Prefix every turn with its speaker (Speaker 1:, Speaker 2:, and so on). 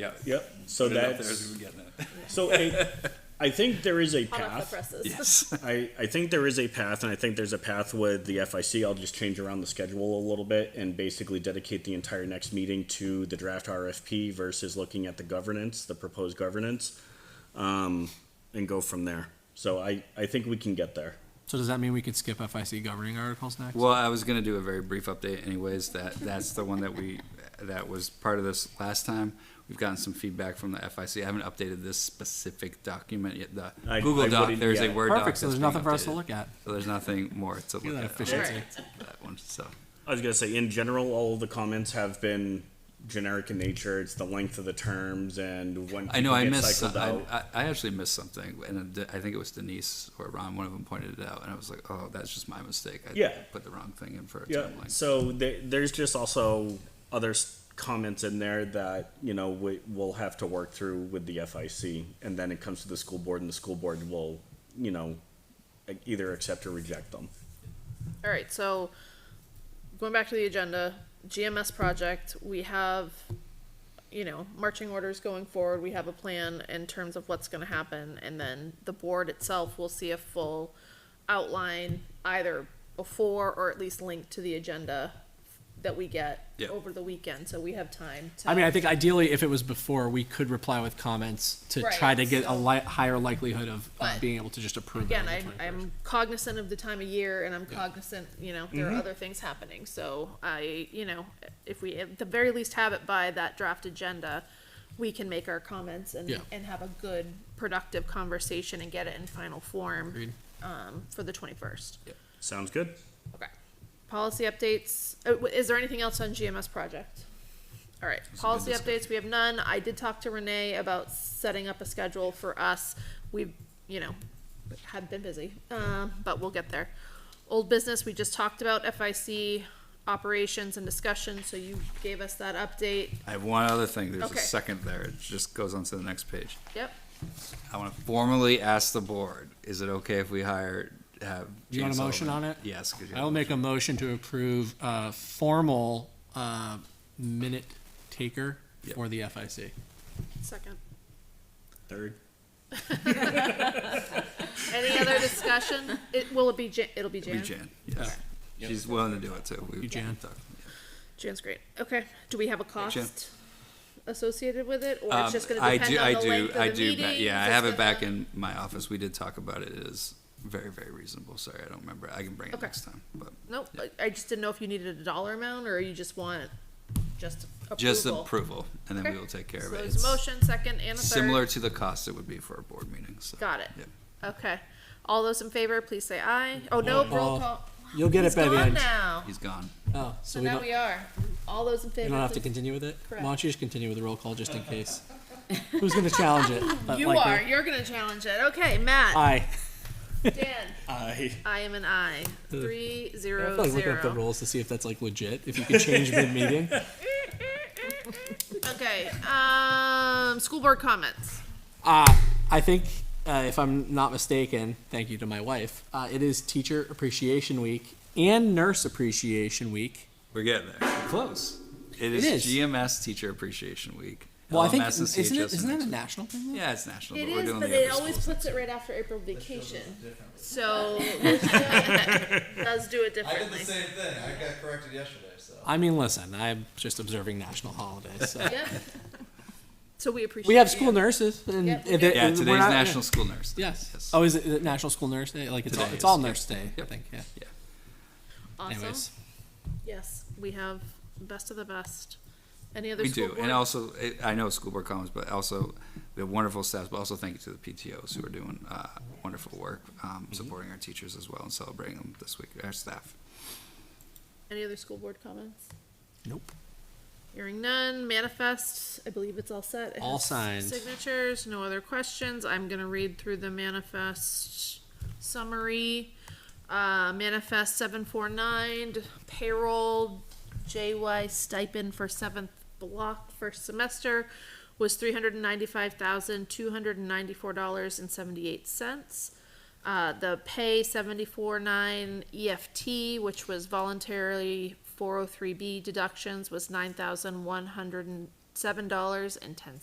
Speaker 1: Yeah.
Speaker 2: Yep, so
Speaker 1: Put it up there
Speaker 2: that's,
Speaker 1: as we were getting it.
Speaker 2: so I, I think there is a
Speaker 3: hot off the
Speaker 2: path.
Speaker 3: presses.
Speaker 1: Yes.
Speaker 2: I, I think there is a path, and I think there's a path with the FIC. I'll just change around the schedule a little bit and basically dedicate the entire next meeting to the draft RFP versus looking at the governance, the proposed governance, um, and go from there. So I, I think we can get there.
Speaker 4: So does that mean we could skip FIC governing articles next?
Speaker 1: Well, I was gonna do a very brief update anyways, that, that's the one that we, that was part of this last time. We've gotten some feedback from the FIC. I haven't updated this specific document yet, the
Speaker 2: I- I
Speaker 1: Google Doc,
Speaker 2: wouldn't-
Speaker 1: there's a
Speaker 2: yeah.
Speaker 1: Word doc.
Speaker 4: Perfect, so
Speaker 1: that's
Speaker 4: there's
Speaker 1: being
Speaker 4: nothing for us to
Speaker 1: updated.
Speaker 4: look at.
Speaker 1: So there's nothing more to look
Speaker 4: Look at that
Speaker 1: at.
Speaker 4: efficiency.
Speaker 3: Alright.
Speaker 1: That one, so.
Speaker 2: I was gonna say, in general, all of the comments have been generic in nature. It's the length of the terms and when
Speaker 1: I know,
Speaker 2: people
Speaker 1: I
Speaker 2: get
Speaker 1: missed, some-
Speaker 2: cycled
Speaker 1: I,
Speaker 2: out.
Speaker 1: I- I actually missed something, and it- I think it was Denise or Ron, one of them pointed it out, and I was like, oh, that's just my mistake. I
Speaker 2: Yeah.
Speaker 1: Put the wrong thing in for a
Speaker 2: Yeah.
Speaker 1: timeline.
Speaker 2: So there, there's just also other s- comments in there that you know we, we'll have to work through with the FIC, and then it comes to the school board, and the school board will, you know, e- either accept or reject them.
Speaker 3: All right, so going back to the agenda, GMS project, we have, you know, marching orders going forward. We have a plan in terms of what's going to happen, and then the board itself will see a full outline either before or at least linked to the agenda that we get
Speaker 1: Yeah.
Speaker 3: over the weekend. So we have time to.
Speaker 4: I mean, I think ideally, if it was before, we could reply with comments to
Speaker 3: Right,
Speaker 4: try to get a
Speaker 3: so-
Speaker 4: li- higher likelihood of,
Speaker 3: But,
Speaker 4: of being able to just approve
Speaker 3: again,
Speaker 4: it.
Speaker 3: I,
Speaker 4: on the 21st.
Speaker 3: I'm cognizant of the time of year, and I'm cognizant, you know, there are
Speaker 4: Mm-hmm.
Speaker 3: other things happening. So I, you know, if we at the very least have it by that draft agenda, we can make our comments and
Speaker 4: Yeah.
Speaker 3: and have a good, productive conversation and get it in final form
Speaker 4: Agreed.
Speaker 3: um, for the twenty first.
Speaker 2: Sounds good.
Speaker 3: Okay. Policy updates. Uh, w- Is there anything else on GMS project? All right, policy updates, we have none. I did talk to Renee about setting up a schedule for us. We've, you know, have been busy, um, but we'll get there. Old business, we just talked about FIC operations and discussion, so you gave us that update.
Speaker 1: I have one other thing, there's a
Speaker 3: Okay.
Speaker 1: second there, it just goes on to the next page.
Speaker 3: Yep,
Speaker 1: I want to formally ask the board, is it okay if we hire, have?
Speaker 4: Do you want a
Speaker 1: Jane
Speaker 4: motion
Speaker 1: Sullivan?
Speaker 4: on it?
Speaker 1: Yes. 'cause you
Speaker 4: I will
Speaker 1: have-
Speaker 4: make a motion to approve a formal uh, minute taker
Speaker 1: Yep.
Speaker 4: for the FIC.
Speaker 3: second.
Speaker 2: Third.
Speaker 3: Any other discussion? It, will it be Jan, it'll be
Speaker 1: Be
Speaker 3: Jan?
Speaker 1: Jan, yes. She's willing to do it too. We-
Speaker 4: You, Jan.
Speaker 3: Jan's great. Okay, do we have a
Speaker 1: Jan.
Speaker 3: cost associated with it, or
Speaker 1: Um,
Speaker 3: it's just gonna
Speaker 1: I
Speaker 3: depend
Speaker 1: do,
Speaker 3: on
Speaker 1: I
Speaker 3: the
Speaker 1: do,
Speaker 3: length
Speaker 1: I
Speaker 3: of the
Speaker 1: do,
Speaker 3: meeting?
Speaker 1: ma- yeah, I
Speaker 3: Is
Speaker 1: have
Speaker 3: this
Speaker 1: it back
Speaker 3: gonna-
Speaker 1: in my office, we did talk about it, it is very, very reasonable, sorry, I don't remember, I can bring it
Speaker 3: Okay.
Speaker 1: next time, but.
Speaker 3: Nope, I- I just didn't know if you needed a dollar amount, or you just want just approval.
Speaker 1: Just approval, and then we
Speaker 3: Okay.
Speaker 1: will take care
Speaker 3: So
Speaker 1: of it.
Speaker 3: there's
Speaker 1: It's
Speaker 3: a motion, second, and a third.
Speaker 1: Similar to the cost it would be for a board meeting, so.
Speaker 3: Got it.
Speaker 1: Yep.
Speaker 3: Okay, all those in favor, please say aye. Oh, no, roll
Speaker 4: Oh,
Speaker 3: call.
Speaker 4: You'll get
Speaker 3: He's
Speaker 4: it by the
Speaker 3: gone
Speaker 4: end.
Speaker 3: now.
Speaker 1: He's gone.
Speaker 4: Oh, so,
Speaker 3: So
Speaker 4: we
Speaker 3: now
Speaker 4: don't,
Speaker 3: we are. All those in favor.
Speaker 4: you don't have to
Speaker 3: please-
Speaker 4: continue with it?
Speaker 3: Correct.
Speaker 4: Why don't you just continue with the roll call just in case? Who's going to challenge it? But
Speaker 3: You
Speaker 4: likely-
Speaker 3: are, you're gonna challenge it. Okay, Matt,
Speaker 4: Aye.
Speaker 3: Dan,
Speaker 2: I.
Speaker 3: I am an aye. Three,
Speaker 4: I feel
Speaker 3: zero,
Speaker 4: like looking up the
Speaker 3: zero.
Speaker 4: rules to see if that's like legit, if you could change mid-meeting.
Speaker 3: Okay, um, school board comments.
Speaker 4: Uh, I think, uh, if I'm not mistaken, thank you to my wife, uh, it is Teacher Appreciation Week and Nurse Appreciation Week.
Speaker 1: We're getting there. We're Close. It is,
Speaker 4: is.
Speaker 1: GMS Teacher Appreciation Week.
Speaker 4: Well, I think,
Speaker 1: LMS and
Speaker 4: isn't it,
Speaker 1: CHS
Speaker 4: isn't
Speaker 1: and
Speaker 4: that a national thing?
Speaker 1: Yeah, it's national.
Speaker 3: It
Speaker 1: but we're
Speaker 3: is,
Speaker 1: doing
Speaker 3: but
Speaker 1: the
Speaker 3: it
Speaker 1: other
Speaker 3: always
Speaker 1: schools.
Speaker 3: puts it right after April vacation. So it does do it
Speaker 5: I did the
Speaker 3: differently.
Speaker 5: same thing. I got corrected yesterday, so.
Speaker 4: I mean, listen, I'm just observing national holidays. So.
Speaker 3: Yeah. So we appreciate.
Speaker 4: We have
Speaker 3: you.
Speaker 4: school nurses, and
Speaker 3: Yep.
Speaker 4: if it-
Speaker 1: Yeah,
Speaker 4: and we're
Speaker 1: today's
Speaker 4: not-
Speaker 1: National School Nurse. Day.
Speaker 4: Yes. Oh, is it the National School Nurse Day? Like it's all,
Speaker 1: Today
Speaker 4: it's all
Speaker 1: is, yeah.
Speaker 4: Nurse Day. I
Speaker 1: Yep.
Speaker 4: think. Yeah.
Speaker 3: Awesome.
Speaker 4: Anyways,
Speaker 3: Yes, we have best of the best. Any other
Speaker 1: we
Speaker 3: school
Speaker 1: do, and
Speaker 3: board?
Speaker 1: also it, I know school board comments, but also the wonderful staff. But also thank you to the PTOS who are doing uh, wonderful work, um,
Speaker 4: Mm-hmm.
Speaker 1: supporting our teachers as well and celebrating them this week. Our staff.
Speaker 3: Any other school board comments?
Speaker 4: nope.
Speaker 3: Hearing none, manifest, I believe it's all set. It
Speaker 4: All
Speaker 3: has
Speaker 4: signed.
Speaker 3: Signatures, no other questions. I'm gonna read through the manifest summary. Uh, manifest seven four nine, payroll, JY stipend for seventh block first semester was three hundred and ninety-five thousand, two hundred and ninety-four dollars and seventy-eight cents. Uh, the pay seventy-four nine EFT, which was voluntarily four oh three B deductions, was nine thousand one hundred and seven dollars and ten